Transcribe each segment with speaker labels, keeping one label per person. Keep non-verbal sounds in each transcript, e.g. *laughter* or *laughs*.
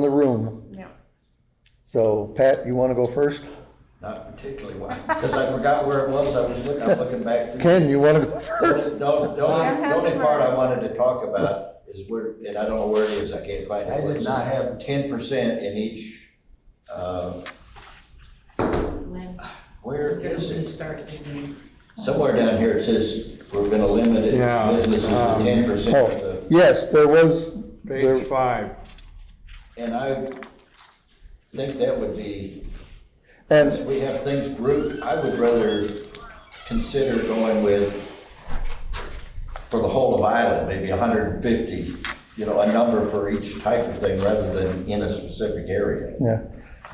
Speaker 1: the room.
Speaker 2: Yeah.
Speaker 1: So Pat, you wanna go first?
Speaker 3: Not particularly why, because I forgot where it was, I was looking, I'm looking back through.
Speaker 1: Ken, you wanna go
Speaker 3: The
Speaker 1: first?
Speaker 3: only, the only- the only part I wanted to talk about is where, and I don't know where it is, I can't find it.
Speaker 4: I did not have-
Speaker 3: Ten percent in each, uh,
Speaker 5: Lynn,
Speaker 3: where is
Speaker 5: the
Speaker 3: it?
Speaker 5: start of this meeting.
Speaker 3: Somewhere down here it says, we're gonna limit it,
Speaker 6: Yeah,
Speaker 3: businesses to
Speaker 6: um,
Speaker 3: ten percent of the.
Speaker 1: Oh, yes, there was, there,
Speaker 6: Page five.
Speaker 3: And I think that would be,
Speaker 1: and
Speaker 3: if we have things grouped, I would rather consider going with, for the whole of Island, maybe hundred and fifty, you know, a number for each type of thing rather than in a specific area.
Speaker 1: Yeah,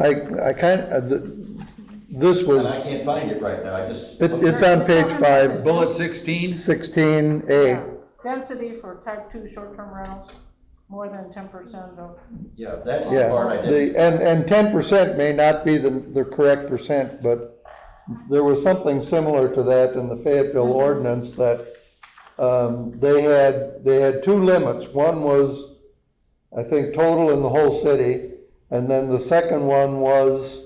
Speaker 1: I, I kind, uh, th- this
Speaker 3: And
Speaker 1: was,
Speaker 3: I can't find it right now, I just.
Speaker 1: it, it's on page five,
Speaker 7: Bullet sixteen,
Speaker 1: sixteen
Speaker 2: Yeah.
Speaker 1: A.
Speaker 2: Density for type two short-term rentals, more than ten percent of,
Speaker 3: Yeah, that's the part
Speaker 1: Yeah,
Speaker 3: I
Speaker 1: the,
Speaker 3: didn't.
Speaker 1: and, and ten percent may not be the, the correct percent, but there was something similar to that in the
Speaker 3: Mm-hmm.
Speaker 1: Fayetteville ordinance that, um, they had, they had two limits. One was, I think, total in the whole city, and then the second one was,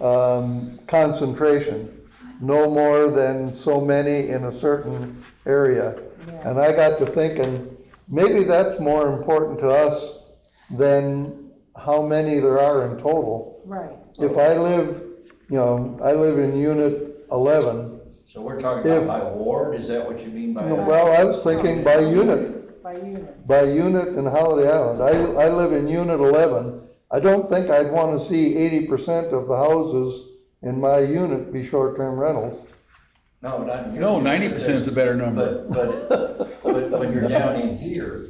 Speaker 1: um, concentration. No more than so many in a certain area.
Speaker 2: Yeah.
Speaker 1: And I got to thinking, maybe that's more important to us than how many there are in total.
Speaker 2: right.
Speaker 1: If I live, you know, I live in unit eleven,
Speaker 3: So we're talking about
Speaker 1: if-
Speaker 3: by ward, is that what you mean by?
Speaker 1: well, I was thinking by unit,
Speaker 2: By unit.
Speaker 1: by unit in Holiday Island. I, I live in unit eleven. I don't think I'd wanna see eighty percent of the houses in my unit be short-term rentals.
Speaker 3: No, not. in
Speaker 7: no,
Speaker 3: unit,
Speaker 7: ninety percent is a better number.
Speaker 3: But, but, but when you're down in here,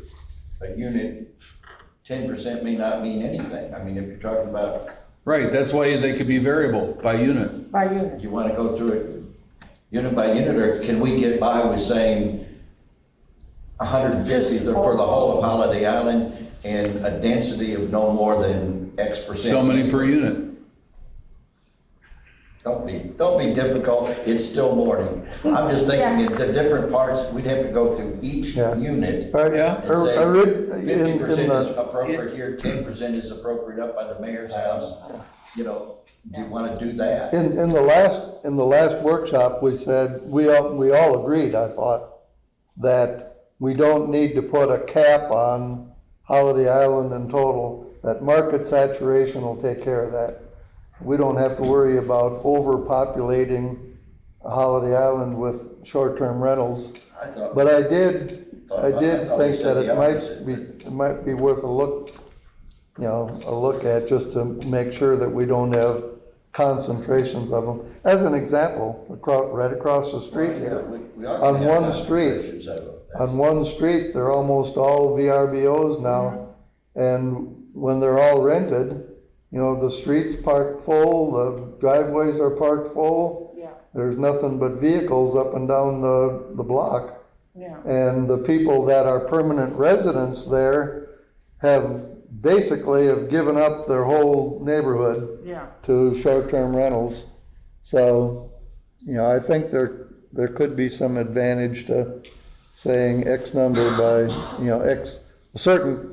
Speaker 3: a unit, ten percent may not mean anything. I mean, if you're talking about,
Speaker 7: Right, that's why they could be variable by unit.
Speaker 2: By unit.
Speaker 3: you wanna go through it unit by unit, or can we get by with saying hundred and fifty for the whole of Holiday Island and a density of no more than X percent?
Speaker 7: So many per unit.
Speaker 3: Don't be, don't be difficult, it's still morning. I'm just thinking, if the different parts, we'd have to go through each
Speaker 1: Yeah.
Speaker 3: unit.
Speaker 1: I-
Speaker 7: Yeah.
Speaker 1: I- I read in-
Speaker 3: Fifty
Speaker 1: in
Speaker 3: percent
Speaker 1: the-
Speaker 3: is appropriate here, ten percent is appropriate up by the mayor's house, you know, you wanna do that.
Speaker 1: In, in the last, in the last workshop, we said, we all, we all agreed, I thought, that we don't need to put a cap on Holiday Island in total, that market saturation will take care of that. We don't have to worry about overpopulating Holiday Island with short-term rentals.
Speaker 3: I thought-
Speaker 1: But I did, I
Speaker 3: I
Speaker 1: did
Speaker 3: thought we
Speaker 1: think
Speaker 3: said
Speaker 1: that
Speaker 3: the
Speaker 1: it might
Speaker 3: opposite.
Speaker 1: be, it might be worth a look, you know, a look at, just to make sure that we don't have concentrations of them. As an example, across, right across the street
Speaker 3: Yeah,
Speaker 1: here,
Speaker 3: we- we ought to
Speaker 1: on
Speaker 3: have
Speaker 1: one
Speaker 3: that
Speaker 1: street.
Speaker 3: conversation, so that's-
Speaker 1: on one street, they're almost all VRBOs now. And when they're all rented, you know, the streets parked full, the driveways are parked full.
Speaker 2: Yeah,
Speaker 1: There's nothing but vehicles up and down the, the block.
Speaker 2: yeah.
Speaker 1: And the people that are permanent residents there have basically have given up their whole neighborhood
Speaker 2: Yeah,
Speaker 1: to short-term rentals. So, you know, I think there, there could be some advantage to saying X number by, you know, X, a certain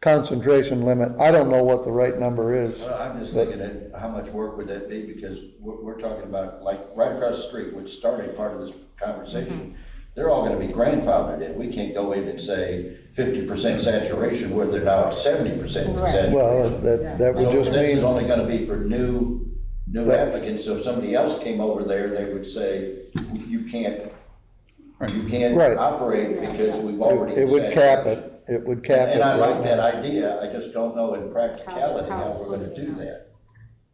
Speaker 1: concentration limit. I don't know what the right number is.
Speaker 3: Well, I'm just thinking that, how much work would that be, because we're, we're talking about, like, right across the street, which started part of this
Speaker 1: Mm-hmm.
Speaker 3: conversation, they're all gonna be grandfathered in, we can't go in and say fifty percent saturation where they're now at seventy percent
Speaker 2: Right.
Speaker 3: saturation.
Speaker 1: Well, that, that would
Speaker 3: So
Speaker 1: just
Speaker 3: this is
Speaker 1: mean,
Speaker 3: only gonna be for new, new
Speaker 1: Right.
Speaker 3: applicants, so if somebody else came over there, they would say, you can't,
Speaker 7: Right.
Speaker 3: you can't
Speaker 1: Right.
Speaker 3: operate because we've already.
Speaker 1: it would
Speaker 3: said-"
Speaker 1: cap it, it would cap it.
Speaker 3: And I
Speaker 1: right
Speaker 3: like
Speaker 1: now.
Speaker 3: that idea, I just don't know in practicality how we're gonna do that.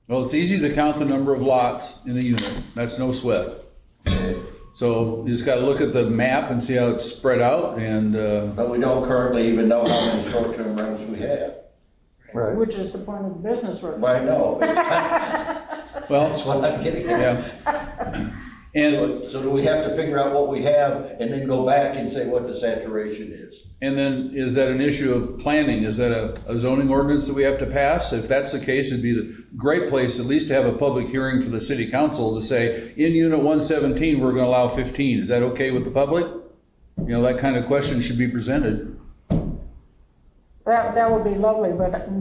Speaker 7: Well, it's easy to count the number of lots in a unit. That's no sweat. So you just gotta look at the map and see how it's spread out and, uh,
Speaker 3: But we don't currently even know how many short-term rentals we have.
Speaker 1: Right.
Speaker 2: which is the point of the business we're.
Speaker 3: Why, *laughs* no,
Speaker 7: well,
Speaker 3: that's what I'm getting at.
Speaker 7: yeah. And
Speaker 3: So do we have to figure out what we have and then go back and say what the saturation is?
Speaker 7: And then, is that an issue of planning? Is that a a zoning ordinance that we have to pass? If that's the case, it'd be the great place at least to have a public hearing for the city council to say, in unit one seventeen, we're gonna allow fifteen. Is that okay with the public? You know, that kind of question should be presented.
Speaker 2: That, that would be lovely, but